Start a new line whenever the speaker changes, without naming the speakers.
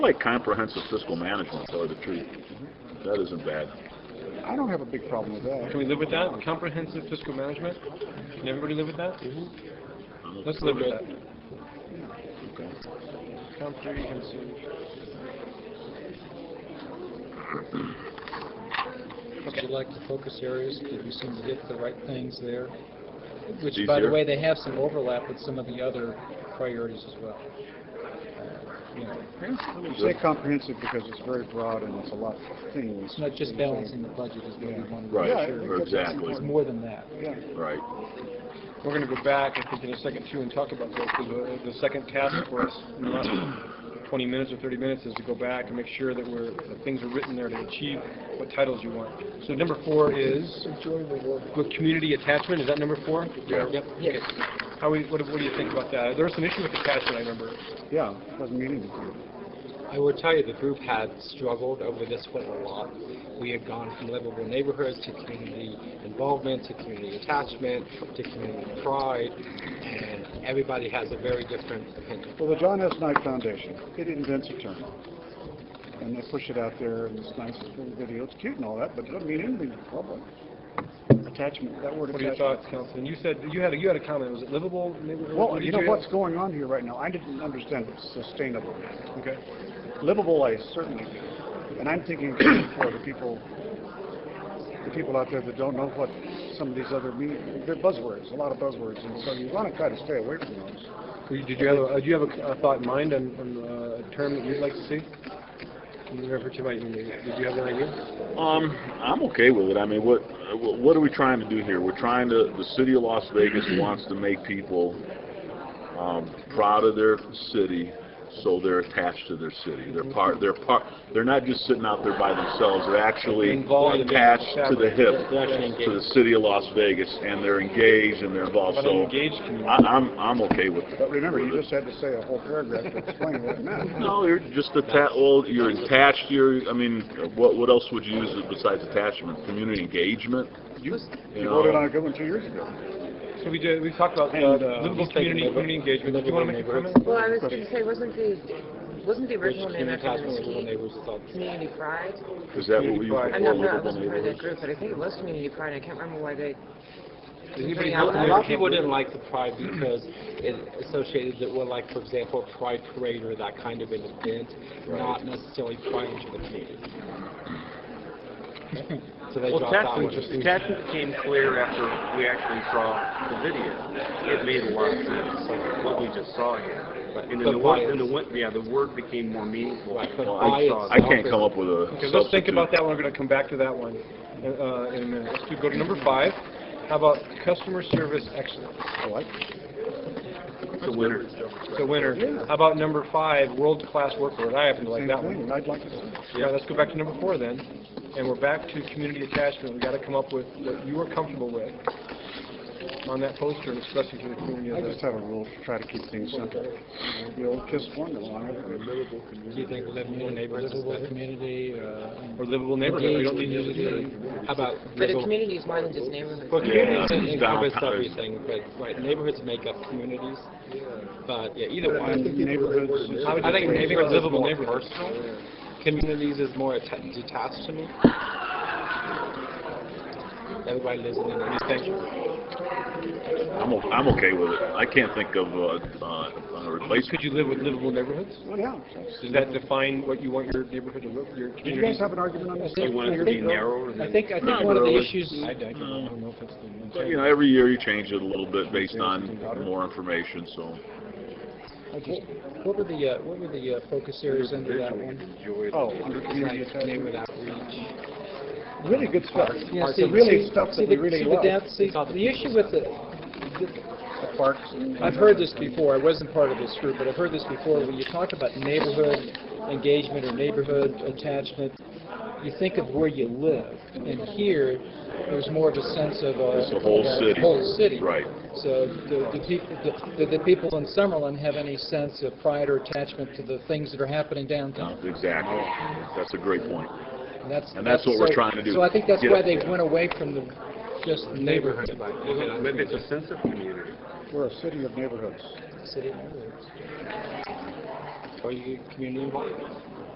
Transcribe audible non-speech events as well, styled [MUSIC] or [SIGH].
like comprehensive fiscal management, tell you the truth. That isn't bad.
I don't have a big problem with that.
Can we live with that? Comprehensive fiscal management? Can everybody live with that?
Mm-hmm.
I'm okay
Let's live with that.
Okay.
Comprehensive.
Would you like the focus areas? Did we seem to get the right things there? Which,
These
by the
here?
way, they have some overlap with some of the other priorities as well. Uh, You know,
We say comprehensive because it's very broad and it's a lot of things.
it's not just balancing the budget is what we want to
Right,
Yeah, I think that's
exactly,
It's more than that.
Yeah.
right.
We're gonna go back, I think, in a second too, and talk about this, because the second task for us in the last twenty minutes or thirty minutes is to go back and make sure that we're, that things are written there to achieve what titles you want. So number four is, with community attachment, is that number four?
Yeah.
Yep. Yes. How, we- what, do- what do you think about that? There was an issue with attachment, I remember.
Yeah, it doesn't mean anything.
I will tell you, the group had struggled over this one a lot. We had gone from livable neighborhoods to community involvement, to community attachment, to community pride, and everybody has a very different opinion.
Well, the John S. Knight Foundation, it invents a term. And they push it out there and it's nice, it's little video, it's cute and all that, but it doesn't mean anything to the public. Attachment, that word
What are your
attachment.
thoughts, Councilman? You said, you had, a you had a comment, was it livable neighborhood? What
Well,
did
you know
have?
what's going on here right now? I didn't understand sustainable.
Okay.
Livable, I certainly do. And I'm thinking for the people, the people out there that don't know what some of these other mean, they're buzzwords, a lot of buzzwords, and so you want to try to stay away from those.
Well, you- Did you have, a- uh, do you have a a thought in mind on, on uh, a term that you'd like to see? You referred to my, did you have an idea?
Um, I'm okay with it. I mean, what uh, wh- what are we trying to do here? We're trying to. The city of Las Vegas wants to make people um, proud of their city, so they're attached to their city. They're part. They're part. They're not just sitting out there by themselves. They're actually
Involved in the
attached to the
fabric.
hip
They're actually
to the
engaged.
city of Las Vegas, and they're engaged and they're involved.
About an
So
engaged community.
I, I'm I'm okay with it.
But remember, you just had to say a whole paragraph to explain what it meant.
No, you're just attached. Well, you're attached. You're. I mean, what what else would you use besides attachment? Community engagement.
You
You
you voted
know.
on a good one two years ago.
So we did, we talked about
And,
uh,
uh,
livable
just taking
community,
over-
community engagement. Did you want to make a
livable
comment?
Well, I was going to say, wasn't the, wasn't the
Which
original name
community
after
attachment, livable
the
neighborhoods is all
community pride?
Is that what we use before
I'm not, I
livable
wasn't part of that
neighborhoods?
group, but I think it was community pride, I can't remember why they,
Does anybody
Yeah,
know?
A lot of people didn't like the pride because it associated it with, like, for example, a pride parade or that kind of an event, not necessarily pride into the
[LAUGHS]
community. So they
Well,
dropped that one.
attachment, attachment became clear after we actually saw the video. It made a lot of sense, like what we just saw here.
Right.
And
But
then the
why
word, then the
is-
word, yeah, the word became more meaningful.
Right, but
when
why
we saw
is-
that.
I can't come up with a
Okay,
substitute.
let's think about that one, we're going to come back to that one uh, in a minute. Let's do- go to number five. How about customer service excellence?
I like
It's a winner.
So winner. How about number five, world-class work order? I happen to like
Same
that one.
thing, I'd like to see.
Yeah, let's go back to number four then, and we're back to community attachment. We gotta come up with what you are comfortable with on that poster, and especially to the community.
I
of
just
the-
have a rule to try to keep things simple. The old KISS formula on everything.
Do you think livable neighborhoods is
Livable
better?
community, uh,
Or livable neighborhood, we don't need to
How about
but a
livable-
community is more than just neighborhood.
Well, communities
Yeah,
encompass
downtown.
everything, but, right, neighborhoods make up communities, but, yeah, either
And
one.
neighborhoods.
I would think
Maybe
neighborhoods is
livable
more
neighborhoods.
personal, communities is more atta- detached to me. Everybody lives in an intersection.
I'm, o- I'm okay with it. I can't think of a, uh, a
Could
replacement.
you live with livable neighborhoods?
Well, yeah.
Does that define what you want your neighborhood to look, your
Did you guys
community?
have an argument on this?
You want it to be narrower
I
than.
think, I think
Not
one of the
really.
issues, I I don't
No.
know if it's the one.
But, you know, every year you change it a little bit based on more information, so.
What- What were the, uh, what were the uh, focus areas under that one?
Oh, under community
Like neighborhood
attachment.
outreach.
Really good stuff.
Yeah,
The
see-
really
see-
stuff
see
that we
the-
really
see,
love.
but that's- see, the issue with the,
The parks and-
I've heard this before, I wasn't part of this group, but I've heard this before, when you talk about neighborhood engagement or neighborhood attachment, you think of where you live, and here, there's more of a sense of a...
It's the whole
of a
city.
whole city.
Right.
So do the people, do- do the people in Summerlin have any sense of pride or attachment to the things that are happening downtown?
Exactly. That's a great point.
And that's,
And that's what we're
so-
trying to do.
So I think that's
Get
why
up
they
there.
went away from the, just neighborhood,
Maybe it's a sense of community.
We're a city of neighborhoods.
city neighborhoods.
tell you community involvement.